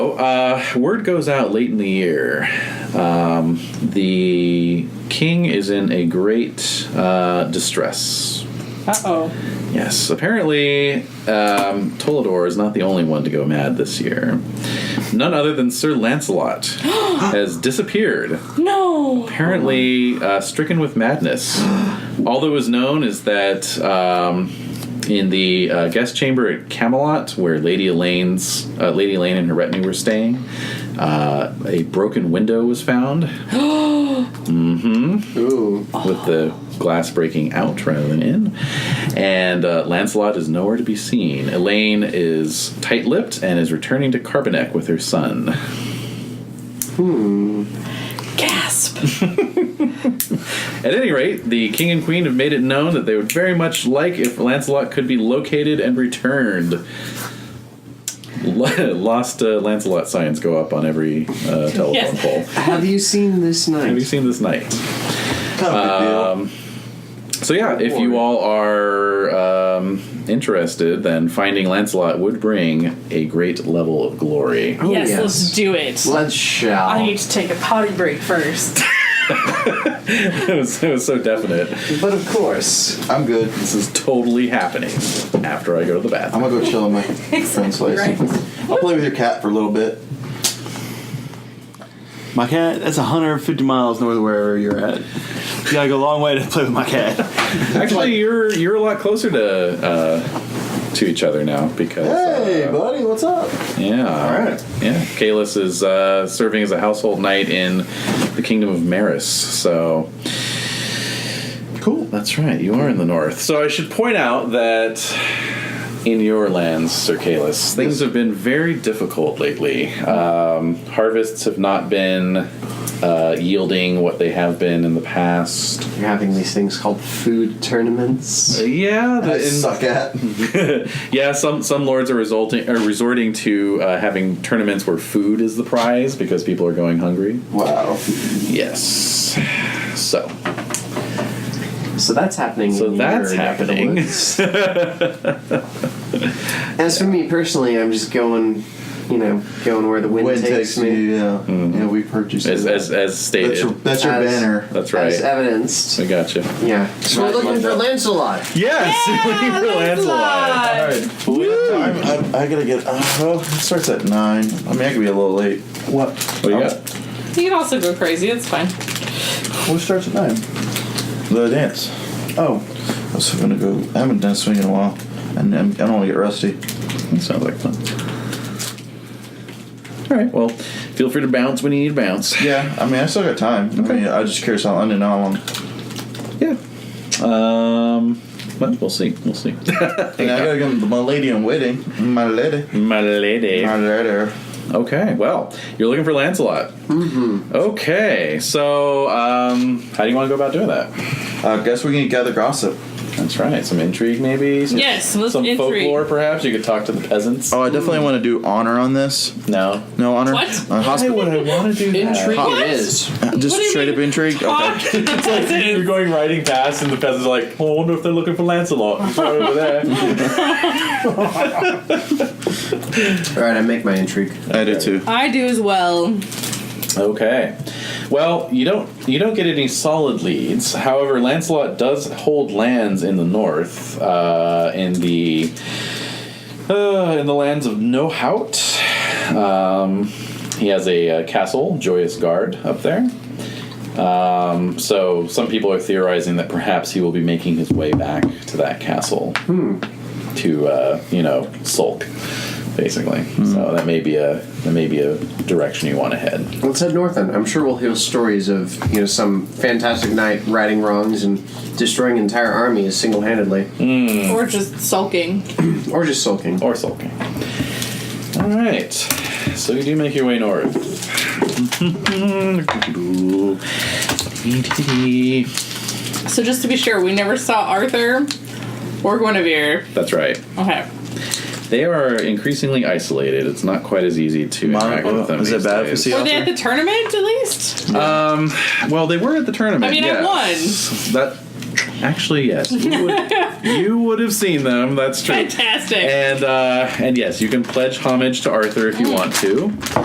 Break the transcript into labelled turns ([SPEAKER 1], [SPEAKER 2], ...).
[SPEAKER 1] So uh, word goes out late in the year. Um, the king is in a great uh, distress.
[SPEAKER 2] Uh oh.
[SPEAKER 1] Yes, apparently um, Tolador is not the only one to go mad this year. None other than Sir Lancelot has disappeared,
[SPEAKER 2] No.
[SPEAKER 1] apparently uh, stricken with madness. All that was known is that um, in the uh, guest chamber at Camelot, where Lady Elaine's uh, Lady Elaine and her retinue were staying, uh, a broken window was found Mm-hmm.
[SPEAKER 3] Ooh.
[SPEAKER 1] with the glass breaking out rather than in. And uh, Lancelot is nowhere to be seen. Elaine is tight lipped and is returning to Carbonek with her son.
[SPEAKER 2] Gasp.
[SPEAKER 1] At any rate, the king and queen have made it known that they would very much like if Lancelot could be located and returned. Lost uh, Lancelot signs go up on every uh, telephone
[SPEAKER 2] Yes.
[SPEAKER 1] pole.
[SPEAKER 3] Have you seen this
[SPEAKER 1] Have you
[SPEAKER 3] night?
[SPEAKER 1] seen this night?
[SPEAKER 4] Not a
[SPEAKER 5] Um,
[SPEAKER 4] big deal.
[SPEAKER 1] So yeah, if you all are um, interested, then finding Lancelot would bring a great level of glory.
[SPEAKER 3] Oh,
[SPEAKER 2] yes, let's do it.
[SPEAKER 3] Let's
[SPEAKER 2] I
[SPEAKER 3] shall.
[SPEAKER 2] need to take a potty break first.
[SPEAKER 1] it, was, it was so definite.
[SPEAKER 3] But of course.
[SPEAKER 4] I'm good.
[SPEAKER 1] This is totally happening after I go to the
[SPEAKER 4] I'm
[SPEAKER 1] bathroom.
[SPEAKER 4] gonna go chill in my friend's place. I'll play with your cat for a little bit.
[SPEAKER 5] My cat, that's 150 miles north of wherever you're at. You gotta go a long way to play with my cat.
[SPEAKER 1] Actually, you're you're a lot closer to uh, to each other now because
[SPEAKER 4] Hey,
[SPEAKER 1] uh,
[SPEAKER 4] buddy, what's up?
[SPEAKER 1] yeah,
[SPEAKER 4] All right.
[SPEAKER 1] yeah. Kalis is uh, serving as a household knight in the kingdom of Maris. So cool. That's right. You are in the north. So I should point out that in your lands, Sir Kalis, things have been very difficult lately. Um, harvests have not been uh, yielding what they have been in the past.
[SPEAKER 3] You're having these things called food tournaments.
[SPEAKER 1] Yeah,
[SPEAKER 4] I
[SPEAKER 1] the, in,
[SPEAKER 4] suck at.
[SPEAKER 1] yeah, some some lords are resulting are resorting to uh, having tournaments where food is the prize because people are going hungry.
[SPEAKER 4] Wow.
[SPEAKER 1] Yes. So
[SPEAKER 3] So that's happening.
[SPEAKER 1] So
[SPEAKER 3] in
[SPEAKER 1] that's
[SPEAKER 3] your neck of the
[SPEAKER 1] happening.
[SPEAKER 3] woods. As for me personally, I'm just going, you know, going where the wind,
[SPEAKER 4] Wind
[SPEAKER 3] takes,
[SPEAKER 4] takes
[SPEAKER 3] me.
[SPEAKER 4] you. Yeah.
[SPEAKER 5] Mm-hmm.
[SPEAKER 4] Yeah, we've heard you say
[SPEAKER 1] as
[SPEAKER 4] that.
[SPEAKER 1] as, as stated,
[SPEAKER 4] that's your, that's your
[SPEAKER 3] As-
[SPEAKER 4] banner.
[SPEAKER 1] that's
[SPEAKER 3] As
[SPEAKER 1] right.
[SPEAKER 3] evidenced.
[SPEAKER 1] I got you.
[SPEAKER 3] Yeah. So we're looking for Lancelot.
[SPEAKER 1] Yes,
[SPEAKER 2] Lancelot.
[SPEAKER 4] I'm, I'm, I gotta get. Uh, well, it starts at nine. I mean, I could be a little late. What?
[SPEAKER 1] What do you got?
[SPEAKER 2] You can also go crazy. It's fine.
[SPEAKER 4] What starts at nine? The dance. Oh, I was gonna go. I haven't done swing in a while, and I'm, I don't want to get rusty.
[SPEAKER 1] That sounds like fun. All right. Well, feel free to bounce when you need to bounce.
[SPEAKER 4] Yeah, I mean, I still got time. I mean, I just curious how long. I didn't know how long.
[SPEAKER 1] Yeah. Um. Well, we'll see. We'll see.
[SPEAKER 4] And I gotta get my lady in waiting. My lady.
[SPEAKER 1] My lady.
[SPEAKER 4] My lady.
[SPEAKER 1] Okay, well, you're looking for Lancelot. Mm-hmm. Okay, so um, how do you want to go about doing that?
[SPEAKER 4] I guess we can gather gossip.
[SPEAKER 1] That's right. Some intrigue, maybe. Some,
[SPEAKER 2] Yes, let's
[SPEAKER 1] some
[SPEAKER 2] intrigue.
[SPEAKER 1] folklore, perhaps. You could talk to the peasants.
[SPEAKER 4] Oh, I definitely want to do honor on this.
[SPEAKER 1] No.
[SPEAKER 4] No honor.
[SPEAKER 2] What?
[SPEAKER 4] Uh, hospi-
[SPEAKER 1] would I want to do
[SPEAKER 3] Intrigue
[SPEAKER 4] What?
[SPEAKER 3] Uh, it is.
[SPEAKER 4] just
[SPEAKER 2] What do you
[SPEAKER 4] straight
[SPEAKER 2] mean?
[SPEAKER 4] up intrigue.
[SPEAKER 2] Talk
[SPEAKER 4] Okay.
[SPEAKER 2] to the
[SPEAKER 1] You're
[SPEAKER 2] peasants.
[SPEAKER 1] going riding past, and the peasants are like, "Oh, I wonder if they're looking for Lancelot right over there."
[SPEAKER 3] All right, I make my intrigue.
[SPEAKER 4] I do too.
[SPEAKER 2] I do as well.
[SPEAKER 1] okay. Well, you don't you don't get any solid leads. However, Lancelot does hold lands in the north, uh, in the uh, in the lands of Nohout. Um, he has a uh, castle, Joyous Guard, up there. Um, so some people are theorizing that perhaps he will be making his way back to that castle to uh, you know sulk, basically. So that may be a that may be a direction you want to head.
[SPEAKER 3] Let's head north then. I'm sure we'll hear stories of you know some fantastic knight righting wrongs and destroying entire armies single-handedly,
[SPEAKER 2] Or just sulking.
[SPEAKER 3] or just sulking.
[SPEAKER 1] Or sulking. All right. So you do make your way north.
[SPEAKER 2] So just to be sure, we never saw Arthur or Guinevere.
[SPEAKER 1] That's right.
[SPEAKER 2] Okay.
[SPEAKER 1] They are increasingly isolated. It's not quite as easy to
[SPEAKER 5] Mono-
[SPEAKER 1] interact with them.
[SPEAKER 5] is it
[SPEAKER 1] these
[SPEAKER 5] bad if you
[SPEAKER 1] days.
[SPEAKER 5] see
[SPEAKER 2] Were they at the tournament at least?
[SPEAKER 1] Um, well, they were at the tournament.
[SPEAKER 2] I mean, I
[SPEAKER 1] yes.
[SPEAKER 2] won.
[SPEAKER 1] That actually, yes, you would, you would have seen them. That's true.
[SPEAKER 2] Fantastic. Mm.
[SPEAKER 1] And uh, and yes, you can pledge homage to Arthur if you want to.